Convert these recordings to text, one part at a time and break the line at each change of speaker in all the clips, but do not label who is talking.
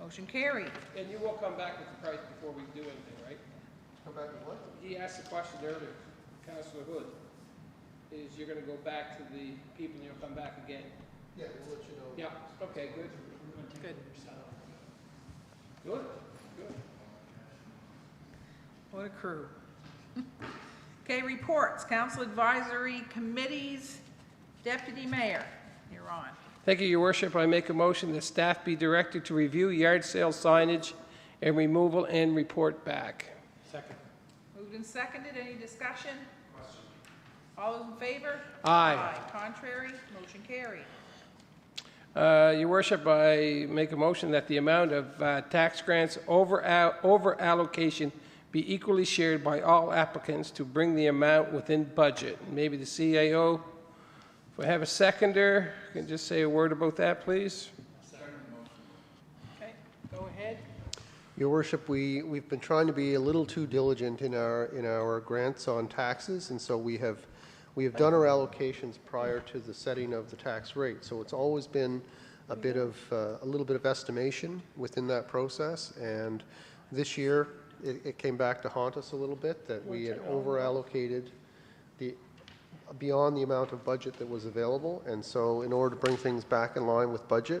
Motion carried.
And you will come back with the price before we do anything, right?
Come back with what?
He asked the question earlier, Councilor Hood, is you're gonna go back to the people and you'll come back again?
Yeah, we'll let you know.
Yeah, okay, good.
Good.
Good, good.
What a crew. Okay, reports, council advisory committees, deputy mayor, you're on.
Thank you, your worship. I make a motion that staff be directed to review yard sale signage and removal and report back.
Moved and seconded, any discussion? All those in favor?
Aye.
Contrary, motion carried.
Uh, Your worship, I make a motion that the amount of uh, tax grants over al- over allocation be equally shared by all applicants to bring the amount within budget. Maybe the CAO, if we have a seconder, can just say a word about that, please?
Okay, go ahead.
Your worship, we, we've been trying to be a little too diligent in our, in our grants on taxes, and so we have, we have done our allocations prior to the setting of the tax rate. So it's always been a bit of, uh, a little bit of estimation within that process, and this year, it, it came back to haunt us a little bit, that we had over-allocated the, beyond the amount of budget that was available, and so in order to bring things back in line with budget,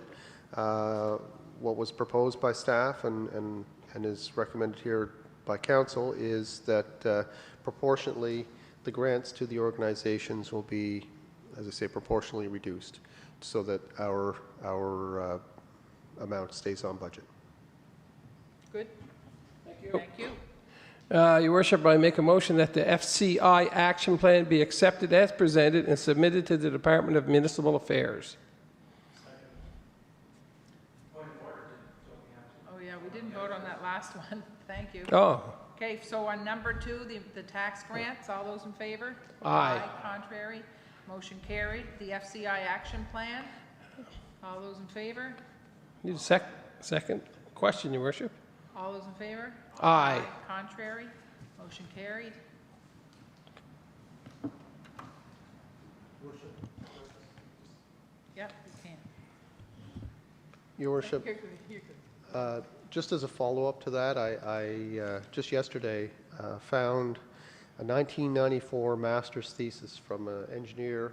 uh, what was proposed by staff and, and and is recommended here by council is that uh, proportionately, the grants to the organizations will be, as I say, proportionally reduced, so that our, our uh, amount stays on budget.
Good? Thank you. Thank you.
Uh, Your worship, I make a motion that the FCI action plan be accepted as presented and submitted to the Department of Municipal Affairs.
Oh, yeah, we didn't vote on that last one, thank you.
Oh,
Okay, so on number two, the, the tax grants, all those in favor?
Aye.
Contrary, motion carried. The FCI action plan, all those in favor?
need a sec, second question, your worship?
All those in favor?
Aye.
Contrary, motion carried. Yep, you can.
Your worship,
You're good, you're good.
Uh, Just as a follow-up to that, I, I, uh, just yesterday, uh, found a 1994 master's thesis from an engineer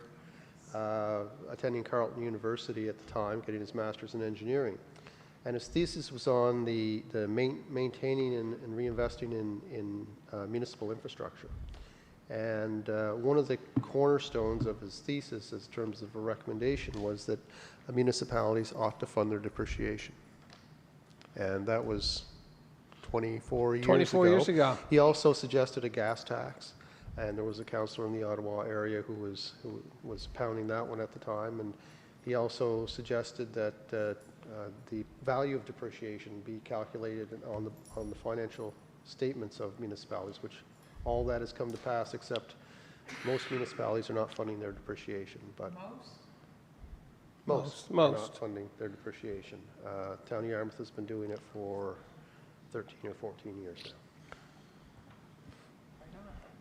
uh, attending Carleton University at the time, getting his master's in engineering. And his thesis was on the, the main- maintaining and and reinvesting in, in uh, municipal infrastructure. And uh, one of the cornerstones of his thesis, in terms of a recommendation, was that municipalities ought to fund their depreciation and that was 24 years ago.
24 years ago.
He also suggested a gas tax, and there was a counselor in the Ottawa area who was, who was pounding that one at the time, and he also suggested that uh, uh, the value of depreciation be calculated on the, on the financial statements of municipalities, which all that has come to pass, except most municipalities are not funding their depreciation, but
Most?
most
Most,
are not
most.
funding their depreciation. Uh, Town of Yarmouth has been doing it for 13 or 14 years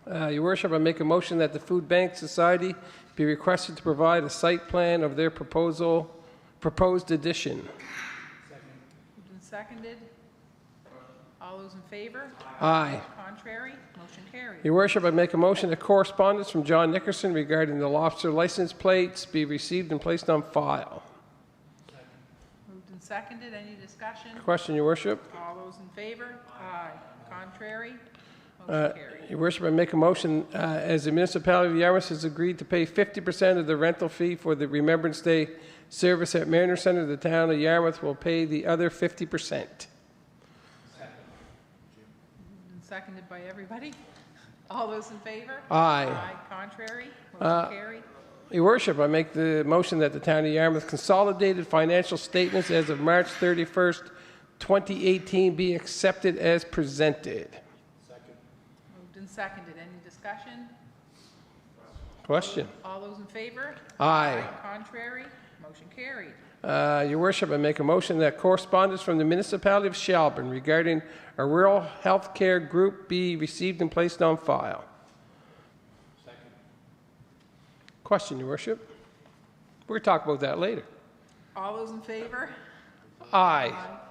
now.
Uh, Your worship, I make a motion that the Food Bank Society be requested to provide a site plan of their proposal, proposed addition.
Moved and seconded. All those in favor?
Aye.
Contrary, motion carried.
Your worship, I make a motion that correspondence from John Nickerson regarding the lobster license plates be received and placed on file.
Moved and seconded, any discussion?
Question, your worship?
All those in favor? Aye. Contrary,
Uh,
motion carried.
Your worship, I make a motion, uh, as the municipality of Yarmouth has agreed to pay 50% of the rental fee for the Remembrance Day service at Mariner Center, the town of Yarmouth will pay the other 50%.
Moved and seconded by everybody. All those in favor?
Aye.
Aye. Contrary,
Uh,
motion carried.
Your worship, I make the motion that the town of Yarmouth consolidated financial statements as of March 31st, 2018 be accepted as presented.
Moved and seconded, any discussion?
Question?
All those in favor?
Aye.
Contrary, motion carried.
Uh, Your worship, I make a motion that correspondence from the municipality of Shelburne regarding a rural health care group be received and placed on file. Question, your worship? We're going to talk about that later.
All those in favor?
Aye.